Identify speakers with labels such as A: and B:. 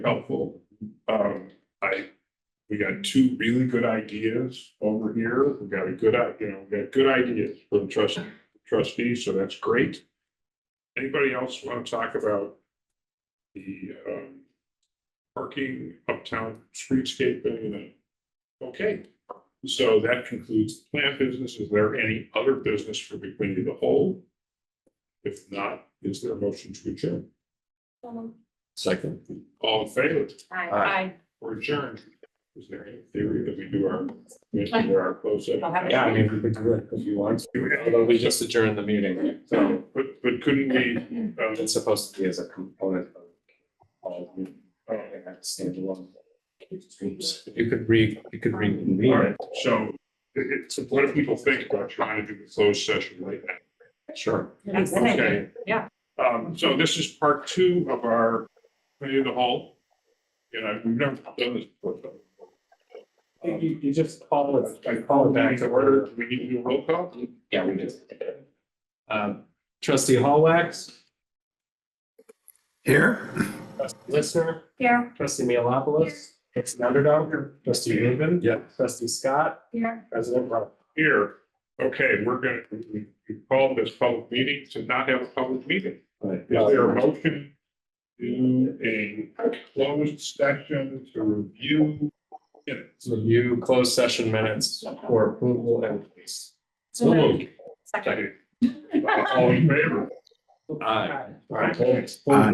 A: helpful. Um, I, we got two really good ideas over here. We got a good, i- you know, we got good ideas from trust trustees, so that's great. Anybody else want to talk about the um parking uptown streetscaping and okay. So that concludes the plant business. Is there any other business for the committee of the whole? If not, is there a motion to adjourn?
B: Second.
A: All in favor?
C: Aye.
A: We're adjourned. Is there any theory that we do our, we do our close? session?
C: I'll have it.
B: Yeah, I mean, we could do it if you want to, although we just adjourned the meeting, so
A: So, but, but couldn't we, um,
B: it's supposed to be as a component of. all of it. I don't think that's standalone. Oops. You could re, you could
A: all
B: reconvene
A: right, so it, it's, what do people think about trying to do the closed session right now?
B: it, sure.
C: That's it.
A: Okay.
C: Yeah.
A: Um, so this is part two of our, committee of the whole. And I, we've never done this before. so,
B: You, you just call it,
A: I
B: call it
A: Back to order, Do we need to do a roll call?
B: Yeah, we did. Um, trustee Hallwax,
D: Here?
B: trustee Listener,
C: Here,
B: trustee Mealopoulos, trustee Underdog, trustee Rubin.
D: Yeah.
B: Trustee Scott,
C: here.
B: president Rob.
A: Here, okay, we're gonna, we we call this public meeting to not have a public meeting.
B: Right.
A: Is there a motion to a closed session to review? minutes?
B: Review closed session minutes for approval and release.
A: So moved.
C: Second.
A: Second. All in favor?
B: Aye.
A: Aye.
B: Aye.